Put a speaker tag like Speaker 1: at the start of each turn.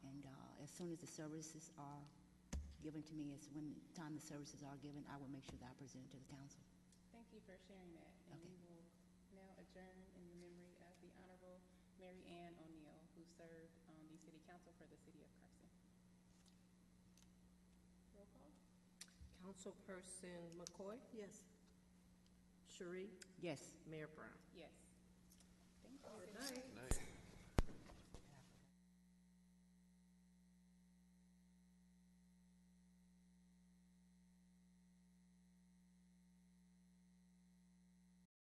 Speaker 1: soon uh, as the services are given to me, as when, time the services are given, I will make sure that I present it to the council.
Speaker 2: Thank you for sharing that. And
Speaker 1: Okay.
Speaker 2: we will now adjourn in the memory of the Honorable Mary Ann O'Neill, who served on the city council for the city of Carson. Roll call?
Speaker 3: Councilperson McCoy? Yes. Sheree?
Speaker 1: Yes.
Speaker 3: Mayor Brown?
Speaker 2: Yes. Thank you.
Speaker 3: Good night.
Speaker 4: Nice.